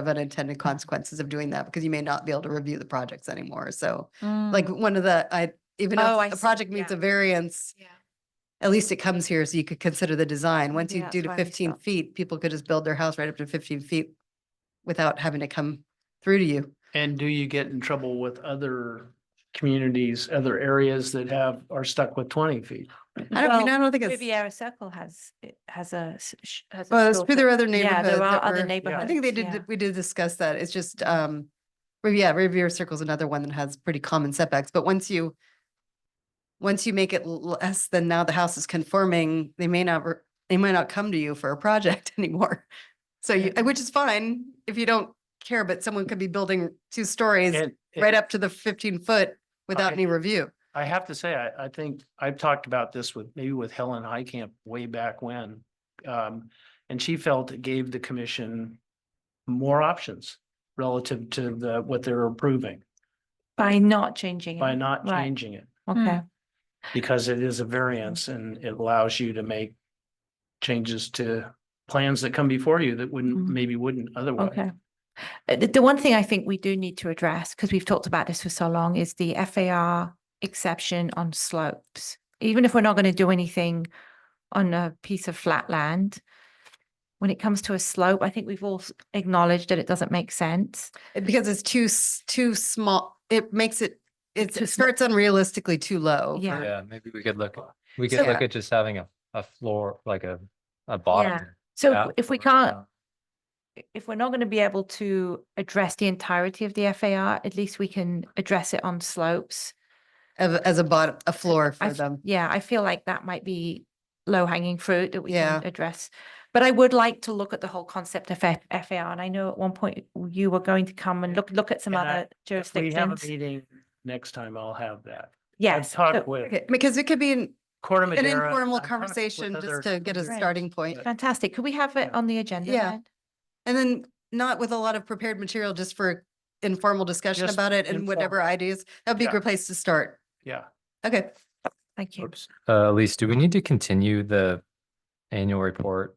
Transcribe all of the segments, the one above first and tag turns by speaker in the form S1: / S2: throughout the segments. S1: of unintended consequences of doing that because you may not be able to review the projects anymore. So like
S2: Like,
S1: one of the, I, even
S2: Hmm. Oh, I
S1: if a
S2: see.
S1: project meets
S2: Yeah.
S1: a variance,
S2: yeah,
S1: at least it comes here so you could consider the design. Once you
S2: Yeah,
S1: do
S2: that's
S1: to
S2: what I
S1: fifteen
S2: thought.
S1: feet, people could just build their house right up to fifteen feet without having to come through to you.
S3: And do you get in trouble with other communities, other areas that have, are stuck with twenty feet?
S1: I don't, I mean,
S2: Well,
S1: I don't think it's,
S2: Riviera Circle has, it has a. s- sh- has a
S1: well, it's
S2: school
S1: through their
S2: for-
S1: other
S2: Yeah,
S1: neighborhoods.
S2: there
S1: that
S2: are other
S1: were-
S2: neighborhoods.
S1: I think they did,
S2: yeah.
S1: di- we did discuss that. It's just, um, Riv- yeah, Riviera Circle's another one that has pretty common setbacks, but once you, once you make it l- less than now the house is conforming, they may not, re- they might not come to you for a project anymore. So you, which is fine if you don't care, but someone could be building two stories
S3: And and
S1: right up to the fifteen foot without
S3: I-
S1: any review.
S3: I have to say, I, I think I've talked about this with, maybe with Helen Heicamp way back when. Um, and she felt it gave the commission more options relative to the, what they're approving
S2: By not changing.
S3: by
S2: it.
S3: not
S2: Right.
S3: changing it.
S2: Okay.
S3: Because it is a variance and it allows you to make changes to plans that come before you that wouldn't,
S2: Mhm.
S3: maybe wouldn't otherwise.
S2: Okay. Uh, The, the one thing I think we do need to address, because we've talked about this for so long, is the FAR exception on slopes. Even if we're not going to do anything on a piece of flat land, when it comes to a slope, I think we've all s- acknowledged that it doesn't make sense.
S1: It- Because it's too, s- too small, it makes it, it's-
S2: Too
S1: it
S2: small.
S1: starts unrealistically too low.
S2: Yeah.
S4: Yeah, maybe we could look,
S3: Well,
S4: we
S2: so-
S4: could look at just having a, a floor, like a, a bottom. out
S2: So if we
S4: or
S2: can't,
S4: down.
S2: i- if we're not going to be able to address the entirety of the FAR, at least we can address it on slopes.
S1: As, as a bottom, a floor for
S2: I f-
S1: them.
S2: Yeah, I feel like that might be low hanging fruit that we can
S1: Yeah.
S2: address. But I would like to look at the whole concept of F- FAR. And I know at one point you were going to come and look, look at some
S3: And I-
S2: other
S3: If we have a
S2: jurisdictions.
S3: meeting next time, I'll have that. I've
S2: Yes.
S3: talked
S2: so-
S3: with
S1: Okay, Because it could be an,
S3: Corder
S1: an
S3: Madera.
S1: informal
S3: I've talked uh, with
S1: conversation
S3: other-
S1: just to get a
S2: Right.
S1: starting point.
S3: But-
S2: Fantastic. Could we have it
S3: Yeah.
S2: on the agenda
S1: Yeah.
S2: then?
S1: And then not with a lot of prepared material, just for informal discussion
S3: Just
S1: about it and
S3: informal.
S1: whatever ideas. That'd be a
S3: Yeah.
S1: good place to start.
S3: Yeah.
S1: Okay,
S2: Thank you.
S3: Oops.
S4: Uh, Elise, do we need to continue the annual report?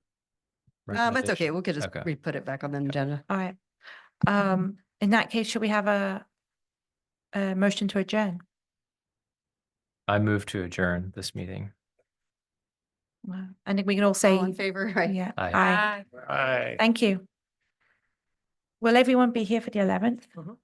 S1: um, that's okay.
S4: recommendation?
S1: We could just
S4: Okay.
S1: re-put it back on the agenda.
S2: All right. Um, in that case, should we have a, a motion to adjourn?
S4: I move to adjourn this meeting.
S2: Wow. I think we can all say,
S1: All in favor, right?
S2: yeah,
S4: Aye.
S2: aye.
S3: All right.
S2: Thank you. Will everyone be here for the eleventh?
S3: Mhm.